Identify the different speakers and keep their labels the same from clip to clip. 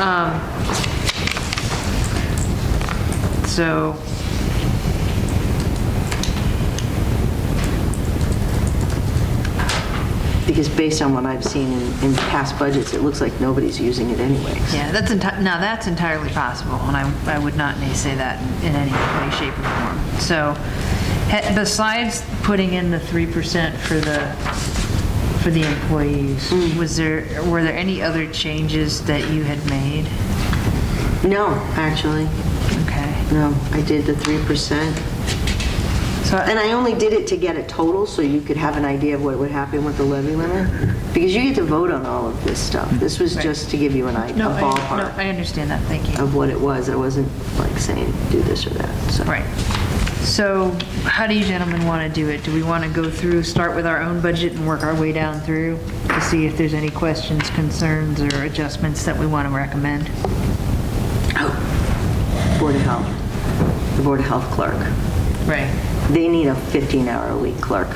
Speaker 1: Um, So,
Speaker 2: Because based on what I've seen in, in past budgets, it looks like nobody's using it anyways.
Speaker 1: yeah, that's, enti- now that's entirely possible, and I, I would not say that in any way, shape, or form. So, he- besides putting in the 3% for the, for the employees, was there, were there any other changes that you had made?
Speaker 2: No, actually,
Speaker 1: Okay.
Speaker 2: no, I did the 3%.
Speaker 1: So,
Speaker 2: And I only did it to get a total, so you could have an idea of what would happen with the levy limit. Because you get to vote on all of this stuff. This was
Speaker 1: Right.
Speaker 2: just to give you an idea, a
Speaker 1: no, I- no,
Speaker 2: ballpark
Speaker 1: I understand that, thank you.
Speaker 2: of what it was. I wasn't like saying, do this or that, so.
Speaker 1: Right. So how do you gentlemen want to do it? Do we want to go through, start with our own budget and work our way down through to see if there's any questions, concerns, or adjustments that we want to recommend?
Speaker 2: Oh, Board of Health, the Board of Health clerk.
Speaker 1: Right.
Speaker 2: They need a 15-hour-a-week clerk,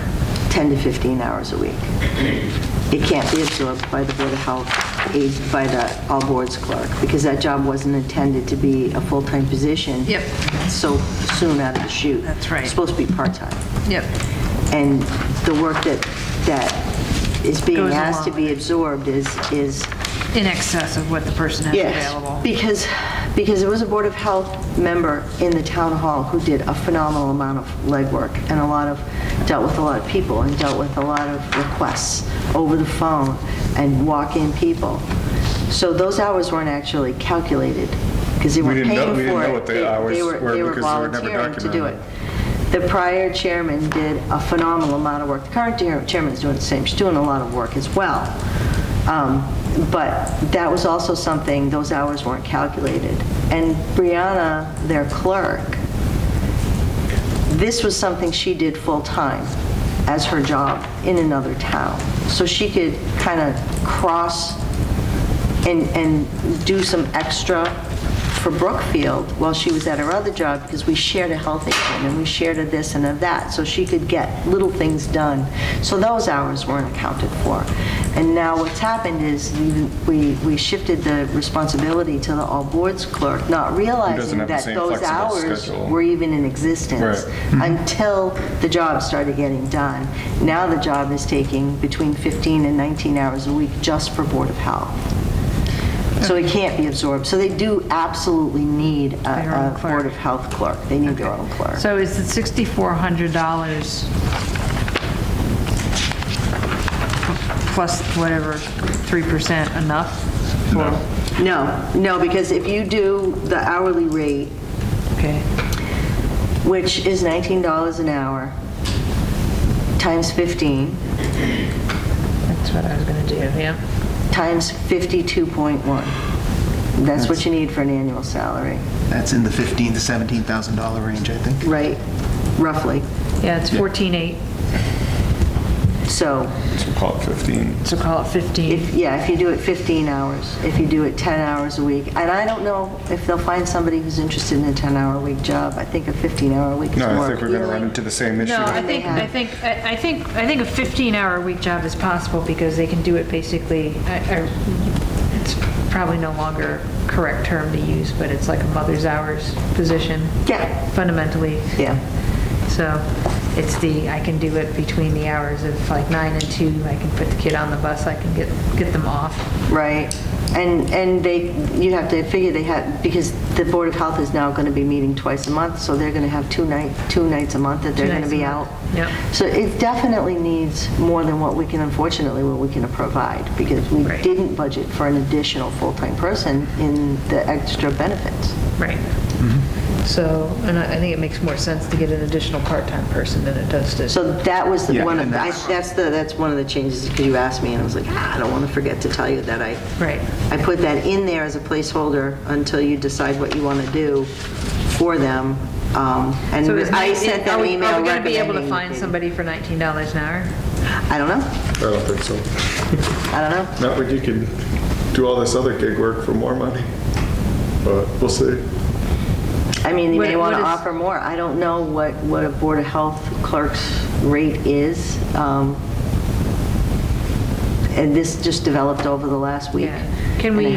Speaker 2: 10 to 15 hours a week. It can't be absorbed by the Board of Health, aid- by the all boards clerk, because that job wasn't intended to be a full-time position.
Speaker 1: Yep.
Speaker 2: So soon out of the chute.
Speaker 1: That's right.
Speaker 2: It's supposed to be part-time.
Speaker 1: Yep.
Speaker 2: And the work that, that is being
Speaker 1: Goes
Speaker 2: asked to
Speaker 1: along with
Speaker 2: be absorbed is, is
Speaker 1: In excess of what the person has available.
Speaker 2: Yes, because, because there was a Board of Health member in the town hall who did a phenomenal amount of legwork and a lot of, dealt with a lot of people and dealt with a lot of requests over the phone and walk-in people. So those hours weren't actually calculated because they
Speaker 3: We
Speaker 2: weren't
Speaker 3: didn't know-
Speaker 2: paying for it.
Speaker 3: we didn't know what the
Speaker 2: They- they
Speaker 3: hours were
Speaker 2: They were
Speaker 3: because they were never
Speaker 2: volunteering to do it.
Speaker 3: documented.
Speaker 2: The prior chairman did a phenomenal amount of work. The current chair- chairman's doing the same, she's doing a lot of work as well. Um, But that was also something, those hours weren't calculated. And Brianna, their clerk, this was something she did full-time as her job in another town. So she could kind of cross and, and do some extra for Brookfield while she was at her other job, because we shared a health agent, and we shared a this and a that, so she could get little things done. So those hours weren't accounted for. And now what's happened is we- we, we shifted the responsibility to the all-boards clerk, not realizing
Speaker 3: have the
Speaker 2: that
Speaker 3: same
Speaker 2: those
Speaker 3: flexible
Speaker 2: hours
Speaker 3: schedule.
Speaker 2: were even in existence
Speaker 3: Right.
Speaker 1: Hmm.
Speaker 2: until the job started getting done. Now the job is taking between 15 and 19 hours a week just for Board of Health. So it can't be absorbed. So they do absolutely need
Speaker 1: Their own
Speaker 2: a- a
Speaker 1: clerk.
Speaker 2: Board of Health clerk. They need their own clerk.
Speaker 1: So is the $6,400 plus whatever, 3% enough? No.
Speaker 2: No, no, because if you do the hourly rate,
Speaker 1: Okay.
Speaker 2: which is $19 an hour, times 15,
Speaker 1: That's what I was going to do, yeah.
Speaker 2: times 52.1. That's what you need for an annual salary,
Speaker 4: That's in the fifteen to seventeen thousand dollar range, I think.
Speaker 2: right? Roughly.
Speaker 1: Yeah, it's 14.8,
Speaker 2: So
Speaker 3: So call it 15.
Speaker 1: so call it 15.
Speaker 2: If, yeah, if you do it 15 hours, if you do it 10 hours a week, and I don't know if they'll find somebody who's interested in a 10-hour-a-week job. I think a 15-hour-a-week is more
Speaker 3: No, I think we're going to run
Speaker 2: appealing.
Speaker 3: into the same issue.
Speaker 1: No, I
Speaker 2: they
Speaker 1: think,
Speaker 2: have.
Speaker 1: I think, I I think, I think a 15-hour-a-week job is possible because they can do it basically, I- I- it's probably no longer a correct term to use, but it's like a mother's hours position.
Speaker 2: Yeah.
Speaker 1: Fundamentally.
Speaker 2: Yeah.
Speaker 1: So it's the, I can do it between the hours of like 9 and 2, I can put the kid on the bus, I can get, get them off.
Speaker 2: Right. And, and they, you have to figure they have, because the Board of Health is now going to be meeting twice a month, so they're going to have two night, two nights a month that they're
Speaker 1: Two
Speaker 2: going to
Speaker 1: nights a
Speaker 2: be out.
Speaker 1: month. Yep.
Speaker 2: So it definitely needs more than what we can, unfortunately, what we can provide, because we
Speaker 1: Right.
Speaker 2: didn't budget for an additional full-time person in the extra benefits.
Speaker 1: Right. So, and I I think it makes more sense to get an additional part-time person than it does to.
Speaker 2: So that was the
Speaker 4: Yeah,
Speaker 2: one, of-
Speaker 4: and
Speaker 2: I-
Speaker 4: that's-
Speaker 2: that's the, that's one of the changes, because you asked me, and I was like, ah, I don't want to forget to tell you that I.
Speaker 1: Right.
Speaker 2: I put that in there as a placeholder until you decide what you want to do for them. Um, And
Speaker 1: So is
Speaker 2: I
Speaker 1: nineteen-
Speaker 2: sent them
Speaker 1: are we-
Speaker 2: email
Speaker 1: Are we going to be able to
Speaker 2: recommending-
Speaker 1: find somebody for $19 an hour?
Speaker 2: I don't know,
Speaker 5: I don't think so.
Speaker 2: I don't know.
Speaker 5: Not when you can do all this other gig work for more money, but we'll see.
Speaker 2: I mean, they may
Speaker 1: What-
Speaker 2: want to
Speaker 1: what is-
Speaker 2: offer more. I don't know what, what a Board of Health clerk's rate is. Um, And this just developed over the last week.
Speaker 1: Yeah. Can
Speaker 2: and a
Speaker 1: we